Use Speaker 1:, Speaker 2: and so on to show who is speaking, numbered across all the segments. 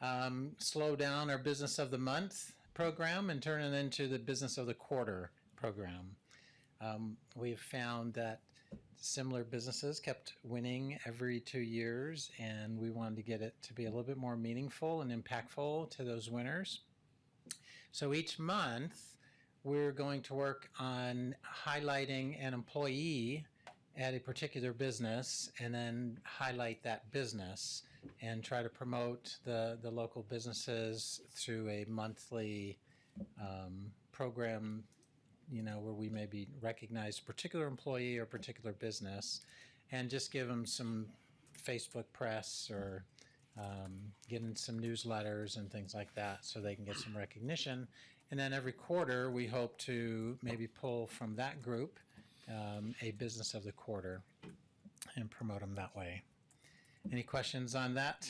Speaker 1: um, slow down our business of the month program and turn it into the business of the quarter program. Um, we've found that similar businesses kept winning every two years, and we wanted to get it to be a little bit more meaningful and impactful to those winners. So each month, we're going to work on highlighting an employee at a particular business and then highlight that business and try to promote the, the local businesses through a monthly um, program, you know, where we maybe recognize a particular employee or particular business and just give them some Facebook press or um, get in some newsletters and things like that so they can get some recognition. And then every quarter, we hope to maybe pull from that group um, a business of the quarter and promote them that way. Any questions on that?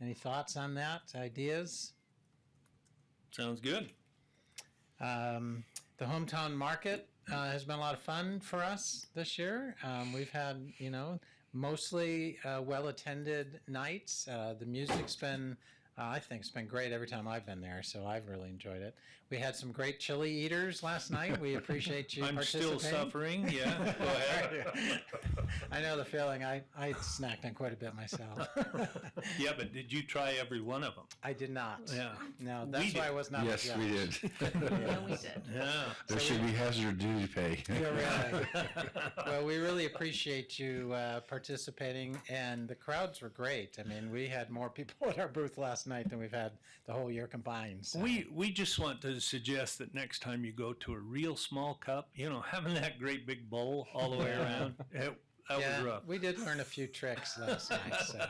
Speaker 1: Any thoughts on that? Ideas?
Speaker 2: Sounds good.
Speaker 1: Um, the hometown market uh, has been a lot of fun for us this year. Um, we've had, you know, mostly uh, well attended nights. Uh, the music's been, uh, I think, it's been great every time I've been there, so I've really enjoyed it. We had some great chili eaters last night. We appreciate you
Speaker 2: I'm still
Speaker 1: participating.
Speaker 2: suffering. Yeah. Go ahead.
Speaker 1: I know the feeling. I, I snacked on quite a bit myself.
Speaker 2: yeah, but did you try every one of them?
Speaker 1: I did not.
Speaker 2: Yeah.
Speaker 1: No, that's
Speaker 2: We
Speaker 1: why I
Speaker 2: did.
Speaker 1: was not. a
Speaker 3: yes, we
Speaker 1: judge.
Speaker 3: did.
Speaker 4: No, we did.
Speaker 2: Yeah.
Speaker 3: there should be hazard duty pay.
Speaker 1: Yeah, really. well, we really appreciate you uh, participating, and the crowds were great. I mean, we had more people at our booth last night than we've had the whole year combined. so-
Speaker 2: We we just want to suggest that next time you go to a real small cup, you know, having that great big bowl all the way around, it, that
Speaker 1: yeah,
Speaker 2: was rough.
Speaker 1: we did learn a few tricks last night, so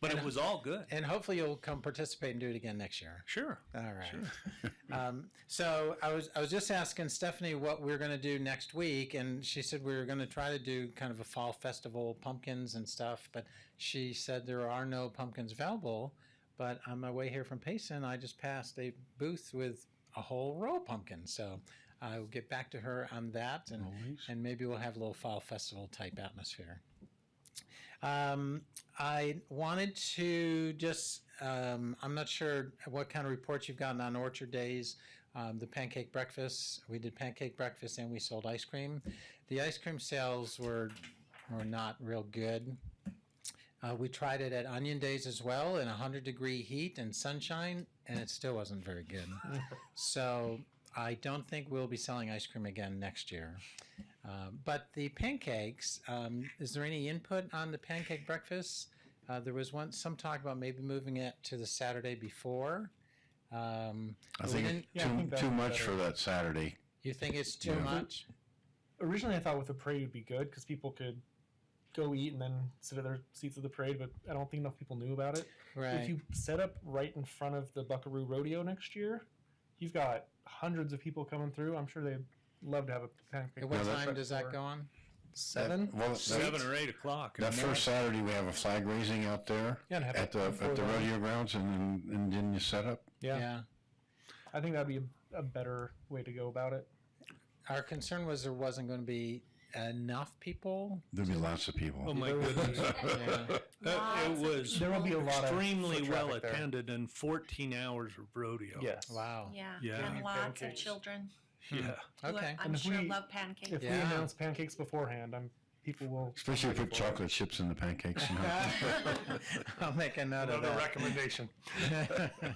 Speaker 2: But it was all good.
Speaker 1: and hopefully you'll come participate and do it again next year.
Speaker 2: Sure.
Speaker 1: All right. um, so I was I was just asking Stephanie what we are going to do next week, and she said we were going to try to do kind of a fall festival, pumpkins and stuff. But she said there are no pumpkins available. But on my way here from Payson, I just passed a booth with a whole row of pumpkins. So I'll get back to her on that, and and maybe we'll have a little fall festival type atmosphere. Um, I wanted to just, um, I'm not sure what kind of reports you've gotten on Orchard Days. Um, the pancake breakfast, we did pancake breakfast and we sold ice cream. The ice cream sales were, were not real good. Uh, we tried it at Onion Days as well in 100 degree heat and sunshine, and it still wasn't very good. so I don't think we'll be selling ice cream again next year. Uh, but the pancakes, um, is there any input on the pancake breakfast? Uh, there was one some talk about maybe moving it to the Saturday before. Um,
Speaker 3: I
Speaker 1: we
Speaker 3: think
Speaker 1: didn't-
Speaker 3: it's
Speaker 5: yeah, I
Speaker 3: too,
Speaker 5: think that
Speaker 3: too
Speaker 5: would be
Speaker 3: much
Speaker 5: better.
Speaker 3: for that Saturday.
Speaker 1: you think it's too
Speaker 3: Yeah.
Speaker 1: much?
Speaker 5: Originally, I thought with the parade would be good because people could go eat and then sit at their seats at the parade, but I don't think enough people knew about it. If
Speaker 1: Right.
Speaker 5: you set up right in front of the Buckaroo Rodeo next year, you've got hundreds of people coming through. I'm sure they'd love to have a pancake.
Speaker 1: At what
Speaker 3: No, that's
Speaker 1: time
Speaker 3: right.
Speaker 1: does that go on?
Speaker 5: Seven.
Speaker 3: That, well, that,
Speaker 2: Seven or eight o'clock.
Speaker 3: that first Saturday we have a flag raising out there
Speaker 5: Yeah, and have
Speaker 3: at
Speaker 5: it
Speaker 3: the
Speaker 5: before
Speaker 3: at the
Speaker 5: then.
Speaker 3: rodeo grounds, and then and then you set up.
Speaker 5: Yeah. I think that'd be a, a better way to go about it.
Speaker 1: Our concern was there wasn't going to be enough people.
Speaker 3: There'll be lots of people.
Speaker 2: Oh my
Speaker 5: There would be-
Speaker 2: goodness.
Speaker 1: Yeah.
Speaker 2: Uh, it
Speaker 4: Lots of
Speaker 2: was
Speaker 5: There will be a lot of
Speaker 2: extremely
Speaker 5: foot
Speaker 2: well
Speaker 5: traffic there.
Speaker 2: attended and 14 hours of rodeo.
Speaker 5: Yes.
Speaker 1: Wow.
Speaker 4: Yeah.
Speaker 2: Yeah.
Speaker 4: And
Speaker 5: And
Speaker 4: lots of
Speaker 5: pancakes.
Speaker 4: children.
Speaker 2: Yeah.
Speaker 4: who are-
Speaker 1: Okay.
Speaker 4: I'm
Speaker 5: And if
Speaker 4: sure
Speaker 5: we-
Speaker 4: love pancakes.
Speaker 5: If we
Speaker 1: Yeah.
Speaker 5: announce pancakes beforehand, I'm people will.
Speaker 3: Especially if you put chocolate chips in the pancakes. You know.
Speaker 1: I'll make a note of
Speaker 6: Another
Speaker 1: that.
Speaker 6: recommendation.
Speaker 1: All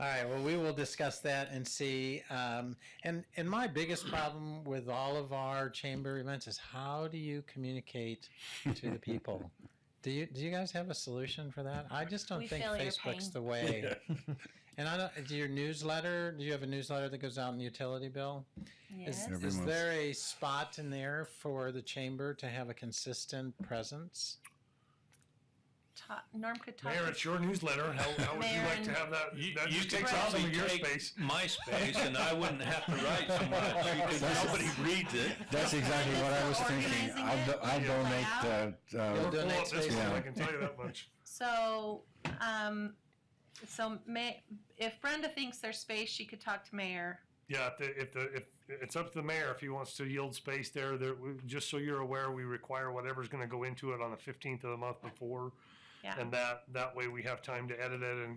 Speaker 1: right. Well, we will discuss that and see. Um, and and my biggest problem with all of our chamber events is how do you communicate to the people? Do you do you guys have a solution for that? I just don't
Speaker 4: We
Speaker 1: think
Speaker 4: feel your
Speaker 1: Facebook's
Speaker 4: pain.
Speaker 1: the way. and I don't. Do your newsletter? Do you have a newsletter that goes out in the utility bill? Is,
Speaker 4: yes.
Speaker 3: Every
Speaker 1: is
Speaker 3: month.
Speaker 1: there a spot in there for the chamber to have a consistent presence?
Speaker 4: Ta- Norm could talk.
Speaker 6: Mayor,
Speaker 4: to-
Speaker 6: it's your newsletter. How, how would you like to have that?
Speaker 2: You,
Speaker 5: Hmm.
Speaker 6: That
Speaker 2: you
Speaker 6: just
Speaker 2: could
Speaker 6: takes up some
Speaker 2: probably
Speaker 6: of your
Speaker 2: take
Speaker 6: space.
Speaker 2: My space, and I wouldn't have to write so much. You could- Nobody reads it.
Speaker 3: That's exactly what I was thinking. I'll, do, I'll donate the.
Speaker 1: You'll
Speaker 3: Uh,
Speaker 6: We're full
Speaker 1: donate
Speaker 6: up this
Speaker 1: space.
Speaker 6: one,
Speaker 3: Yeah.
Speaker 6: I can tell you that much.
Speaker 4: So, um, so may, if Brenda thinks there's space, she could talk to Mayor.
Speaker 6: Yeah, if, the, if, the, if it's up to the mayor if he wants to yield space there. There, we- just so you're aware, we require whatever's going to go into it on the 15th of the month before,
Speaker 4: Yeah.
Speaker 6: and that that way we have time to edit it and